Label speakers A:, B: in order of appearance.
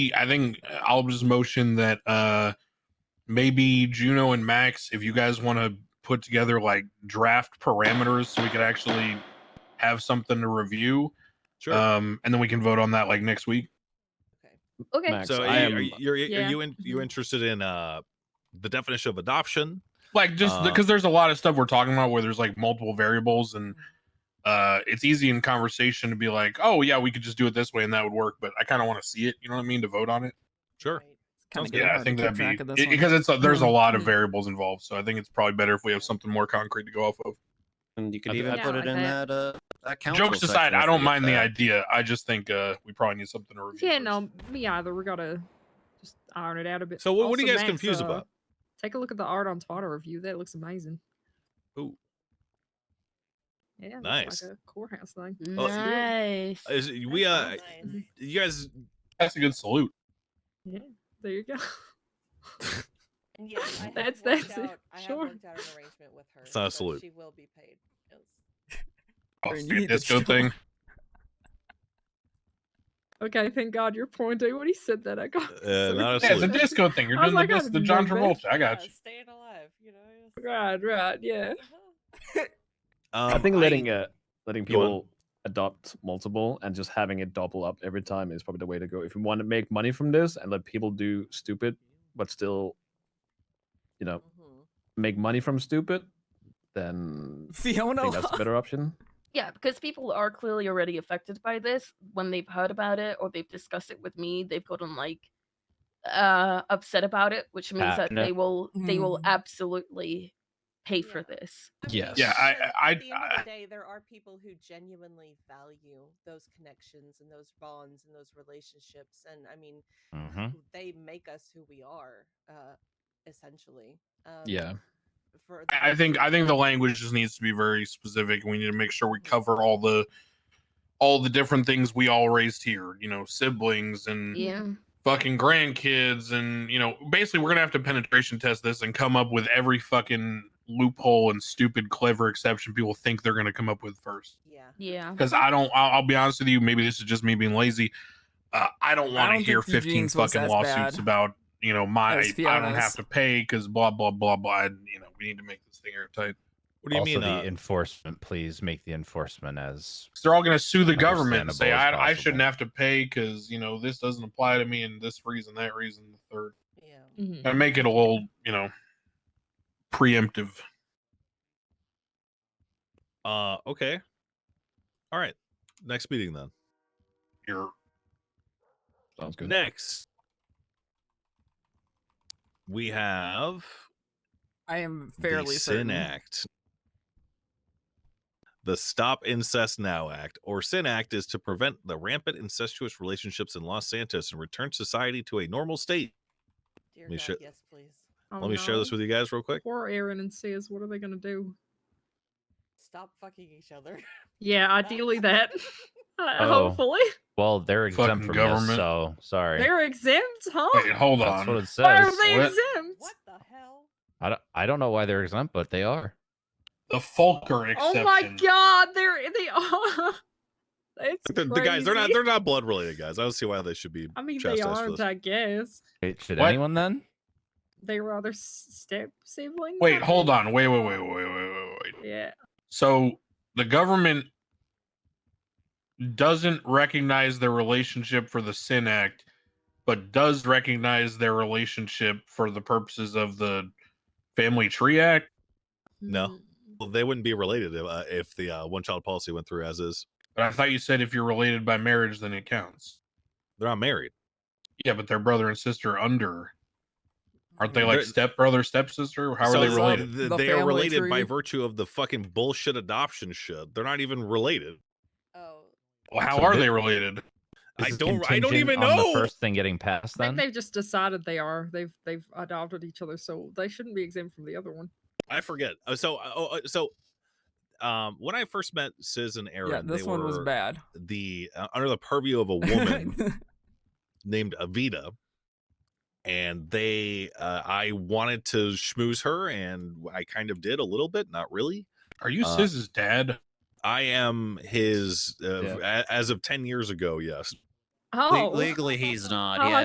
A: I think I'll just motion that uh maybe Juno and Max, if you guys want to put together like draft parameters so we could actually have something to review.
B: Sure.
A: Um, and then we can vote on that like next week.
C: Okay.
D: Max,
B: so
D: I
B: are you,
D: am-
B: are you, you're-
C: Yeah.
B: are you in,
E: Mm-hmm.
B: you interested in uh the definition of adoption?
A: Like just
B: Uh,
A: because there's a lot of stuff we're talking about where there's like multiple variables and uh it's easy in conversation to be like, oh yeah, we could just do it this way and that would work, but I kind of want to see it. You know what I mean? To vote on it.
B: Sure. Sounds
E: Kind of
B: good.
A: Yeah, I think that'd
E: track
A: be Mm-hmm.
E: of this
A: it-
E: one.
A: because it's a, there's a lot of
C: Mhm.
A: variables involved, so I think it's probably better if we have something more concrete to go off of.
D: and you could
B: I
D: even
C: think-
D: put
C: Yeah,
D: it
C: I
D: in
C: bet.
D: that uh that council
A: Jokes aside,
D: section if
A: I
D: we
A: don't
D: get
A: mind the
D: that.
A: idea. I just think uh we probably need something to review.
C: Yeah,
A: first.
C: no, me either. We gotta just iron it out a bit.
B: So what, what are you
C: Also,
B: guys
C: Max,
B: confused
C: uh,
B: about?
C: Take a look at the art on Twitter review. That looks amazing.
B: Ooh.
C: Yeah, it looks
B: Nice.
C: Like a courthouse thing.
F: nice.
B: Is it- we
F: That
B: uh
F: sounds nice.
B: you guys
A: That's a good salute.
C: There you go.
F: And yes, I have
C: That's-
F: worked
C: that's it.
F: out, I have
C: Sure.
F: worked out an arrangement with her.
B: It's not a
F: so
B: salute.
F: She will be paid. Yes.
A: Oh,
E: Burn,
A: see,
E: you need to
A: disco
E: chill.
A: thing.
C: Okay, thank God you're pointing when he said that. I got
B: Uh, not a
A: Yeah, it's a
B: Absolutely.
A: disco thing. You're
C: I was
A: doing
C: like,
A: the
C: I
A: best, the
C: have
A: John
C: no
A: Travolta. I got
F: Yeah,
A: you.
F: uh, Staying alive, you know. yes.
C: Right, right, yeah.
F: Uh-huh.
B: um,
G: I think letting uh, letting
B: Go on.
G: people adopt multiple and just having it double up every time is probably the way to go. If you want to make money from this and let people do stupid but still, you know,
F: Mhm.
G: make money from stupid, then I
E: Fiona.
G: think that's a better option.
H: Yeah, because people are clearly already affected by this when they've heard about it or they've discussed it with me. They've gotten like uh upset about it, which means that
D: Passionate.
H: they will they will
E: Mm.
H: absolutely pay for
F: Yeah.
H: this.
F: I mean,
D: Yes.
A: Yeah,
F: because
A: I- I-
F: At the end
A: I-
F: of the day, there are people who genuinely value those connections and those bonds and those relationships, and I mean,
B: Mm-hmm.
A: Mm-hmm.
D: Mhm.
F: they make us who we are, uh, essentially. Um,
G: Yeah.
F: For the
A: I I
F: most
A: think I
F: part.
A: think the language just needs to be very specific. We need to make sure we cover all the all the different things we all raised here. You know, siblings and
H: Yeah.
A: fucking grandkids, and you know, basically we're gonna have to penetration test this and come up with every fucking loophole and stupid clever exception people think they're gonna come up with first.
F: Yeah.
H: Yeah.
A: Because I don't, I'll, I'll be honest with you. Maybe this is just me being lazy. Uh, I don't want to
E: don't
A: hear
E: think
A: 15
E: Eugene's was
A: fucking
E: as
A: lawsuits
E: bad
A: about you know my.
E: as
A: I don't have
E: Fiona's.
A: to pay because blah blah blah blah. And, you know we need to make this thing airtight.
B: What do you
I: also
B: mean?
I: the
B: Uh,
I: enforcement? Please make the enforcement as
A: 'Cause they're all going to sue the government and say
I: Understandable as
A: I, I shouldn't
I: possible.
A: have to pay because you know this doesn't apply to me and this reason that reason the third.
F: Yeah.
C: Mhm.
A: And make it a little you know preemptive.
B: uh, okay. All right. Next meeting then.
A: Your
G: Sounds good.
B: Next, we have
E: I am
B: the
E: fairly
B: Sin
E: certain.
B: Act. The Stop Incest Now Act, or Sin Act, is to prevent the rampant incestuous relationships in Los Santos and return society to a normal state.
F: Dear
B: Let me
F: God,
B: share-
F: yes, please.
C: Oh,
B: Let me share this
C: no.
B: with you guys real quick.
C: poor Aaron and Sis. What are they gonna do?
F: Stop fucking each other.
C: Yeah, ideally that. Uh,
I: Oh.
C: Hopefully
I: well. They're exempt
A: Fucking
I: from
A: government.
I: this, so sorry.
C: they're exempt, huh?
A: wait, hold
I: That's what
A: on.
I: it
C: Why are
I: says.
C: they
A: What?
C: exempt?
F: What the hell?
I: I don't, I don't know why they're exempt, but they are.
A: The Fulker exception.
C: Oh my God, they're they are. It's
B: The, the guys, they're not
C: crazy.
B: they're not blood related guys. I don't see why they should be.
C: I mean, they
B: chastised for
C: aren't.
B: this.
C: I guess
I: Wait, Should
A: What?
I: anyone then?
C: they were other s- step siblings. I
A: Wait, hold
C: think.
A: on. Wait, wait, wait, wait, wait, wait, wait.
C: Yeah.
A: So the government doesn't recognize their relationship for the Sin Act, but does recognize their relationship for the purposes of the Family Tree Act.
C: Hmm.
B: No. Well, they wouldn't be related if, uh, if the uh, one child policy went through as is.
A: But I thought you said if you're related by marriage, then it counts.
B: They're not married.
A: Yeah, but they're brother and sister under. Aren't they like
B: They're-
A: step brother, stepsister? How are
B: So
A: they
B: the-
A: related?
B: the-
E: The
B: they are
E: family
B: related by
E: tree.
B: virtue of the fucking bullshit adoption shit. They're not even related.
F: Oh,
A: Well, how
I: So
A: are
I: thi-
A: they related?
B: I
I: This is
B: don't- I don't
I: contingent
B: even
I: on
B: know.
I: The first thing getting passed,
C: I
I: then
C: think they've just decided they are. They've they've adopted each other, so they shouldn't be exempt from the other one.
B: I forget. Uh, So, uh, oh, uh, so, um, when I first met Sis and Aaron,
E: Yeah, this
B: they
E: one was
B: were
E: bad.
B: The uh, under the purview of a woman named Avita, and they, uh, I wanted to schmooze her, and I kind of did a little bit, not really.
A: Are you
B: Uh,
A: Sis's dad?
B: I am his uh,
G: Yeah.
B: a- as of ten years ago. Yes,
C: Oh,
D: Le- legally he's not.
C: Oh, I
D: yeah,